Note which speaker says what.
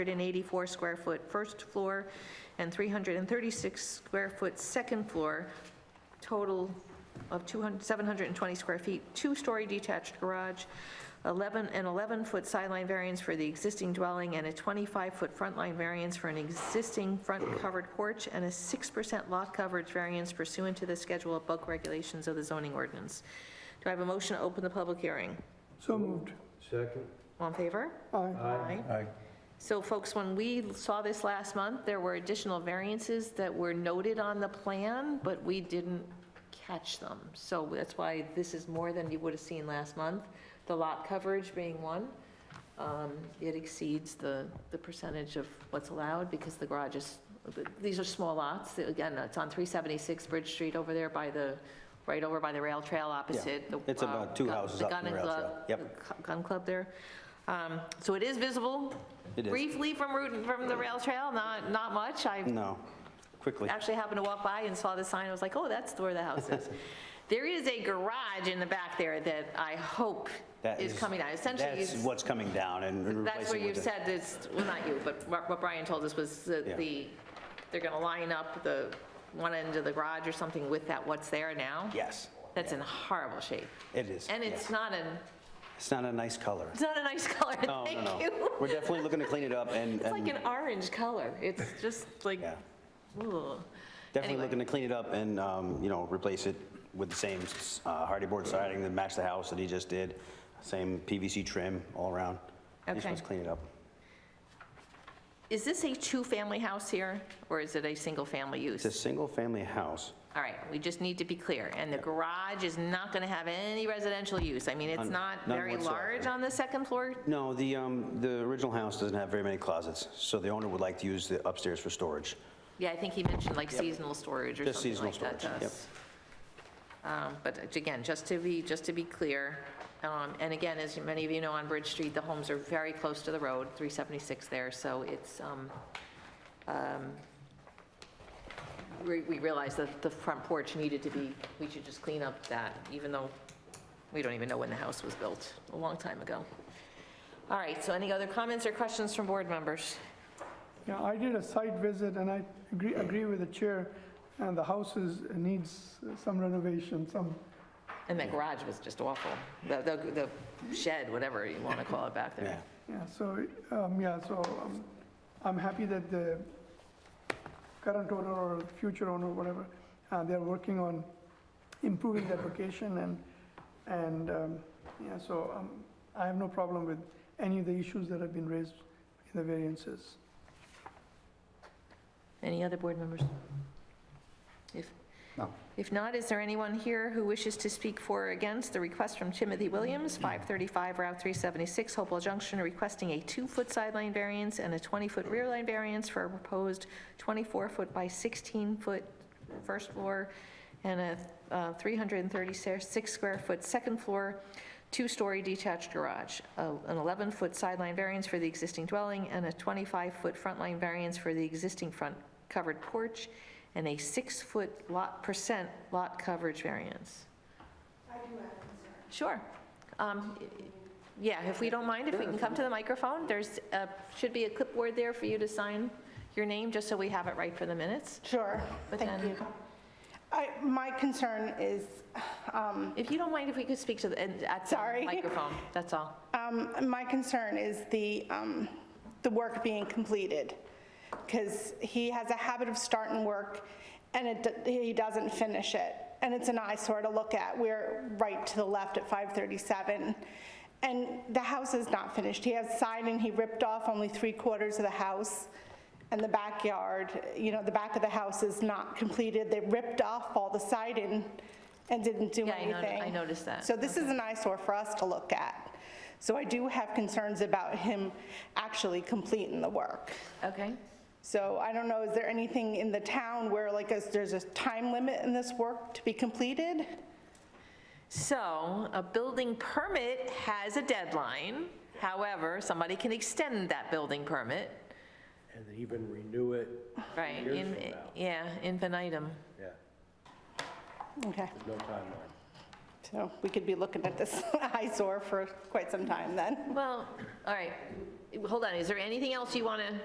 Speaker 1: 184 square foot first floor and 336 square foot second floor, total of 200 720 square feet, two-story detached garage, 11 and 11-foot sideline variance for the existing dwelling, and a 25-foot front line variance for an existing front covered porch, and a 6% lot coverage variance pursuant to the schedule of bulk regulations of the zoning ordinance. Do I have a motion to open the public hearing?
Speaker 2: So moved.
Speaker 3: Second?
Speaker 1: All in favor?
Speaker 2: Aye.
Speaker 1: Aye. So folks, when we saw this last month, there were additional variances that were noted on the plan, but we didn't catch them. So that's why this is more than you would have seen last month. The lot coverage being one, um, it exceeds the, the percentage of what's allowed because the garage is, these are small lots. Again, it's on 376 Bridge Street over there by the, right over by the rail trail opposite. the,
Speaker 4: It's
Speaker 1: uh,
Speaker 4: about two
Speaker 1: gun-
Speaker 4: houses up
Speaker 1: gun
Speaker 4: from
Speaker 1: and
Speaker 4: the rail
Speaker 1: glove-
Speaker 4: trail. Yep.
Speaker 1: the cu- gun club there. Um, So it is visible
Speaker 4: It is.
Speaker 1: briefly from Route, from the rail trail, not, not much. I
Speaker 4: No, quickly.
Speaker 1: actually happened to walk by and saw the sign, I was like, oh, that's where the house is. There is a garage in the back there that I hope
Speaker 4: That
Speaker 1: is coming out. Essentially,
Speaker 4: That's
Speaker 1: you-
Speaker 4: what's coming down and and
Speaker 1: that's what
Speaker 4: replacing
Speaker 1: you
Speaker 4: with the...
Speaker 1: said, it's, well, not you, but what what Brian told us was that
Speaker 4: Yeah.
Speaker 1: the, they're going to line up the one end of the garage or something with that, what's there now?
Speaker 4: Yes,
Speaker 1: That's in horrible shape.
Speaker 4: it is.
Speaker 1: And
Speaker 4: yeah.
Speaker 1: it's not an,
Speaker 4: It's not a nice color.
Speaker 1: it's not a nice color,
Speaker 4: No, no,
Speaker 1: thank you.
Speaker 4: no. We're definitely looking to clean it up and,
Speaker 1: It's like
Speaker 4: and-
Speaker 1: an orange color. It's just like,
Speaker 4: yeah.
Speaker 1: ugh.
Speaker 4: Definitely looking
Speaker 1: Anyway,
Speaker 4: to clean it up and, um, you know, replace it with the same uh, hardy board siding that matched the house that he just did, same PVC trim all around. Just
Speaker 1: Okay.
Speaker 4: wants to clean it up.
Speaker 1: Is this a two-family house here, or is it a single-family use?
Speaker 4: It's a single-family house.
Speaker 1: All right, we just need to be clear. And the garage is not going to have any residential use. I mean, it's
Speaker 4: None-
Speaker 1: not
Speaker 4: none
Speaker 1: very
Speaker 4: whatsoever.
Speaker 1: large on the second floor.
Speaker 4: No, the, um, the original house doesn't have very many closets, so the owner would like to use the upstairs for storage.
Speaker 1: Yeah, I think he mentioned like seasonal storage or
Speaker 4: Just
Speaker 1: something
Speaker 4: seasonal
Speaker 1: like that to
Speaker 4: storage, yep.
Speaker 1: us. Um, But again, just to be, just to be clear, um, and again, as many of you know, on Bridge Street, the homes are very close to the road, 376 there, so it's, um, um, we we realized that the front porch needed to be, we should just clean up that, even though we don't even know when the house was built, a long time ago. All right, so any other comments or questions from board members?
Speaker 2: Yeah, I did a site visit and I agree, agree with the chair, and the house is, needs some renovation, some,
Speaker 1: And that garage was just awful. The, the the shed, whatever you want to call it back
Speaker 4: Yeah.
Speaker 1: there.
Speaker 2: yeah, so, um, yeah, so um, I'm happy that the current owner or future owner, whatever, uh, they're working on improving that location and, and, um, yeah, so um, I have no problem with any of the issues that have been raised in the variances.
Speaker 1: Any other board members? If,
Speaker 4: No.
Speaker 1: if not, is there anyone here who wishes to speak for or against the request from Timothy Williams, 535 Route 376, Hopewell Junction, requesting a two-foot sideline variance and a 20-foot rear line variance for a proposed 24-foot by 16-foot first floor and a uh, 336 square foot second floor, two-story detached garage, a- an 11-foot sideline variance for the existing dwelling, and a 25-foot front line variance for the existing front covered porch, and a six-foot lot, percent lot coverage variance. I do have Sure. Um, Yeah, if we don't mind, if we can come to the microphone, there's, a- should be a clipboard there for you to sign your name, just so we have it right for the minutes.
Speaker 5: Sure,
Speaker 1: But
Speaker 5: thank
Speaker 1: then-
Speaker 5: you. I, my concern is, um,
Speaker 1: If you don't mind, if we could speak to the, and at the
Speaker 5: Sorry.
Speaker 1: microphone, that's all.
Speaker 5: um, my concern is the, um, the work being completed. Because he has a habit of starting work and it, d- he doesn't finish it. And it's an eyesore to look at. We're right to the left at 537. And the house is not finished. He has siding, he ripped off only three quarters of the house. And the backyard, you know, the back of the house is not completed. They ripped off all the siding and didn't do
Speaker 1: Yeah, I
Speaker 5: anything.
Speaker 1: noti- I noticed that.
Speaker 5: So this is an eyesore for us to look at. So I do have concerns about him actually completing the work.
Speaker 1: Okay?
Speaker 5: So I don't know, is there anything in the town where like, is there's a time limit in this work to be completed?
Speaker 1: So a building permit has a deadline. However, somebody can extend that building permit,
Speaker 3: And even renew it,
Speaker 1: right?
Speaker 3: Years
Speaker 1: in-
Speaker 3: from now.
Speaker 1: Yeah, infinitum.
Speaker 3: yeah,
Speaker 5: Okay,
Speaker 3: no timeline.
Speaker 5: so we could be looking at this eyesore for quite some time then.
Speaker 1: Well, all right. hold on, is there anything else you want to